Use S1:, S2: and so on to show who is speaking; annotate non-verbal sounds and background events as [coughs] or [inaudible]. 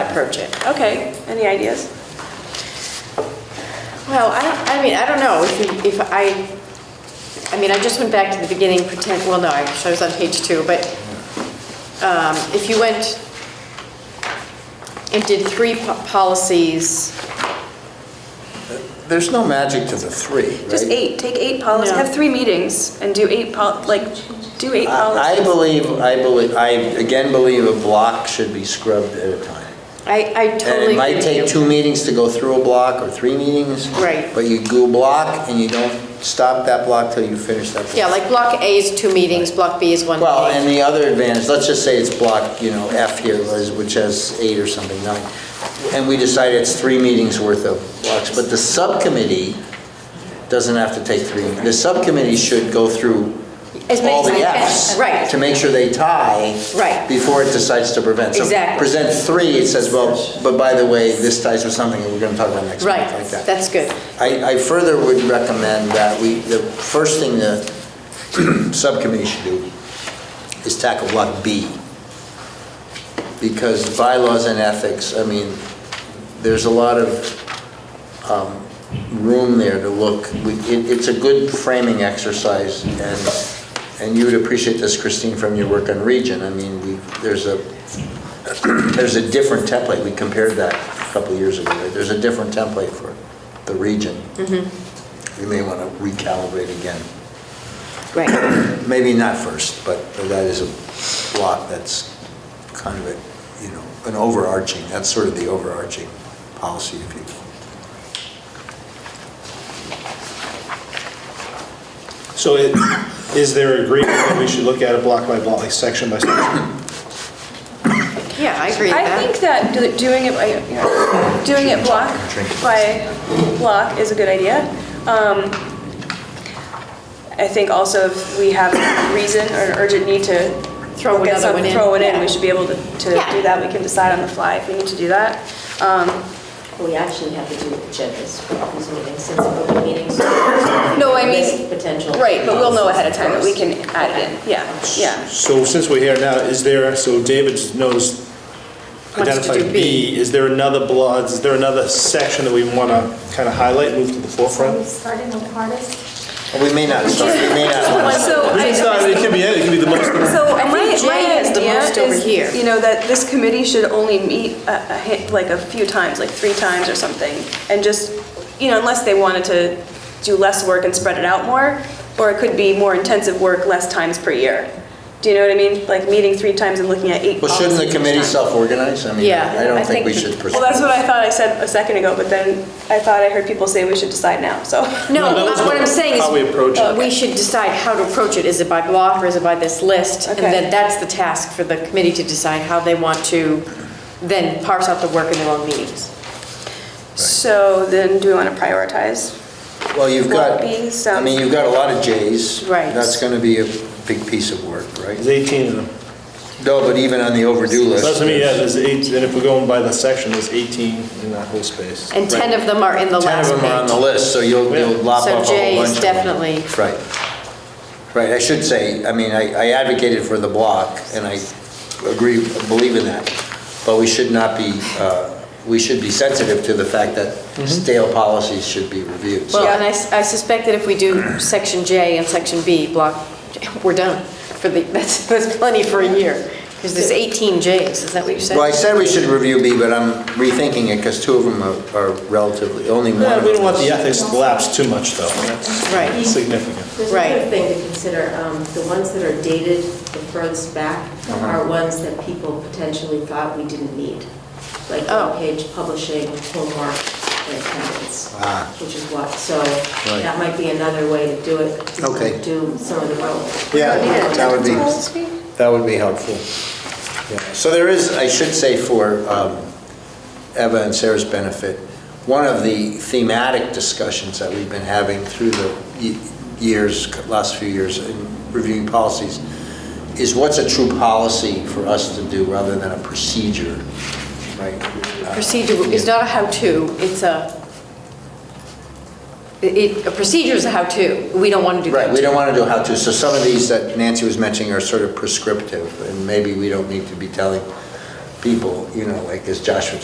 S1: approach it. Okay, any ideas?
S2: Well, I don't, I mean, I don't know if, you- if I, I mean, I just went back to the beginning, pretend, well, no, I I was on page two, but um, if you went and did three po- policies,
S3: There's no magic to the three, right?
S1: Just eight, take eight policies,
S2: No.
S1: have three meetings and do eight pol, like, do eight
S3: I I
S1: policies.
S3: believe, I believe, I again believe a block should be scrubbed at a time.
S2: I, I
S3: And
S2: totally
S3: it
S2: agree
S3: might take
S2: with you.
S3: two meetings to go through a block or three meetings.
S2: Right.
S3: But you do a block and you don't stop that block till you finish that block.
S2: Yeah, like block A is two meetings, block B is one
S3: Well,
S2: meeting.
S3: and the other advantage, let's just say it's block, you know, F here, Liz, which has eight or something, nine. And we decide it's three meetings worth of blocks, but the subcommittee doesn't have to take three. The subcommittee should go through
S2: As many
S3: all the
S2: as they can.
S3: Fs.
S2: Right.
S3: To make sure they tie.
S2: Right.
S3: Before it decides to prevent. So
S2: Exactly.
S3: Present three, it says, well, but by the way, this ties with something that we're gonna talk about next month,
S2: Right,
S3: like that.
S2: that's good.
S3: I, I further would recommend that we, the first thing the [clears throat] subcommittee should do is tackle block B. Because bylaws and ethics, I mean, there's a lot of um, room there to look. We- it- It's a good framing exercise, and, and you would appreciate this, Christine, from your work on Region. I mean, we, there's a, there's a different template, we compared that a couple of years ago, right? There's a different template for the Region.
S2: Mm-hmm.
S3: You may want to recalibrate again
S2: Right,
S3: maybe not first, but that is a block that's kind of a, you know, an overarching, that's sort of the overarching policy, if you will.
S4: So it, is there agreement that we should look at it block by block, like section by section?
S2: yeah, I agree with
S1: I
S2: that.
S1: think that do- doing it, by- you know, doing it block by block is a good idea. Um, I think also if we have a reason or an urgent need to
S2: Throw
S1: look at
S2: another one
S1: something-
S2: in,
S1: Throw it in,
S2: yeah.
S1: we should be able to to
S2: Yeah.
S1: do that, we can decide on the fly if we need to do that. Um,
S5: We actually have to do agendas for all these meetings, since open meetings.
S1: [coughs]
S5: No,
S1: I mean-
S5: Potential.
S1: Right, but we'll know ahead of time that we can add it in, yeah, yeah.
S4: So since we're here now, is there, so David knows,
S2: to do
S4: identified
S2: B.
S4: B, is there another block, is there another section that we want to kind of highlight, move to the
S6: Are we
S4: forefront?
S6: starting with hardest?
S3: We may not start, we may not want to.
S1: So I-
S4: It's not, it can be, any- it can be the most,
S1: So my,
S2: think Jay
S1: my
S2: has the
S1: idea
S2: most over
S1: is,
S2: here.
S1: you know, that this committee should only meet a, a hit, like a few times, like three times or something, and just, you know, unless they wanted to do less work and spread it out more, or it could be more intensive work, less times per year. Do you know what I mean? Like meeting three times and looking at eight
S3: Well,
S1: policies
S3: shouldn't the
S1: each
S3: committee
S1: time.
S3: self-organize? I mean,
S2: Yeah,
S3: I
S2: I
S3: don't think
S2: think
S3: we
S2: the-
S3: should pursue.
S1: Well, that's what I thought I said a second ago, but then I thought I heard people say we should decide now, so.
S2: No,
S4: No, that was
S2: what I'm
S4: what-
S2: saying is.
S4: how we approach it.
S2: We should decide how to approach it. Is it by block or is it by this list? And
S1: Okay.
S2: then that's the task for the committee to decide how they want to then parse out the work in their own meetings.
S1: [laughs] So then do we want to prioritize?
S3: Well, you've got,
S1: Well, B
S3: I
S1: sounds-
S3: mean, you've got a lot of Js.
S2: Right.
S3: That's going to be a big piece of work,
S4: there's
S3: right?
S4: 18 of them.
S3: No, but even on the overdue list.
S4: So that's what I mean, yeah, there's eight, and if we're going by the section, there's 18 in that whole space.
S2: And 10 of them are in the
S3: Ten of
S2: last
S3: them are on the
S2: page.
S3: list, so you'll, you'll lop off a
S2: So
S3: whole bunch.
S2: J is
S3: of them.
S2: definitely-
S3: Right. Right, I should say, I mean, I I advocated for the block, and I agree, believe in that. But we should not be, uh, we should be sensitive to the fact that
S4: Mm-hmm.
S3: stale policies should be reviewed.
S2: Well,
S3: So-
S2: and I s- I suspect that if we do section J and section B, block, [laughs] we're done for the, [laughs] that's, that's plenty for a year. Because there's 18 Js, is that what you said?
S3: Well, I said we should review B, but I'm rethinking it, because two of them are- are relatively, only one.
S4: Yeah,
S3: of
S4: we don't want
S3: them
S4: the
S3: is-
S4: ethics to lapse too much, though, and that's
S2: Right.
S4: significant.
S5: There's
S2: Right.
S5: another thing to consider, um, the ones that are dated the furthest back
S3: Uh-huh.
S5: are ones that people potentially thought we didn't need. Like
S2: Oh.
S5: page publishing, homework, and attendance,
S3: Ah.
S5: which is what, so
S3: Right.
S5: that might be another way to do it. to
S3: Okay.
S5: Do some of the roles.
S3: Yeah,
S1: Yeah,
S3: that would be,
S1: that's all this week.
S3: that would be helpful. Yeah. So there is, I should say for um, Eva and Sarah's benefit, one of the thematic discussions that we've been having through the ye- years, last few years in reviewing policies, is what's a true policy for us to do rather than a procedure, right? Uh,
S2: procedure is not a how-to, it's a, it, a procedure is a how-to. We don't want to do that.
S3: Right, we don't want to do how-to, so some of these that Nancy was mentioning are sort of prescriptive, and maybe we don't need to be telling people, you know, like as Joshua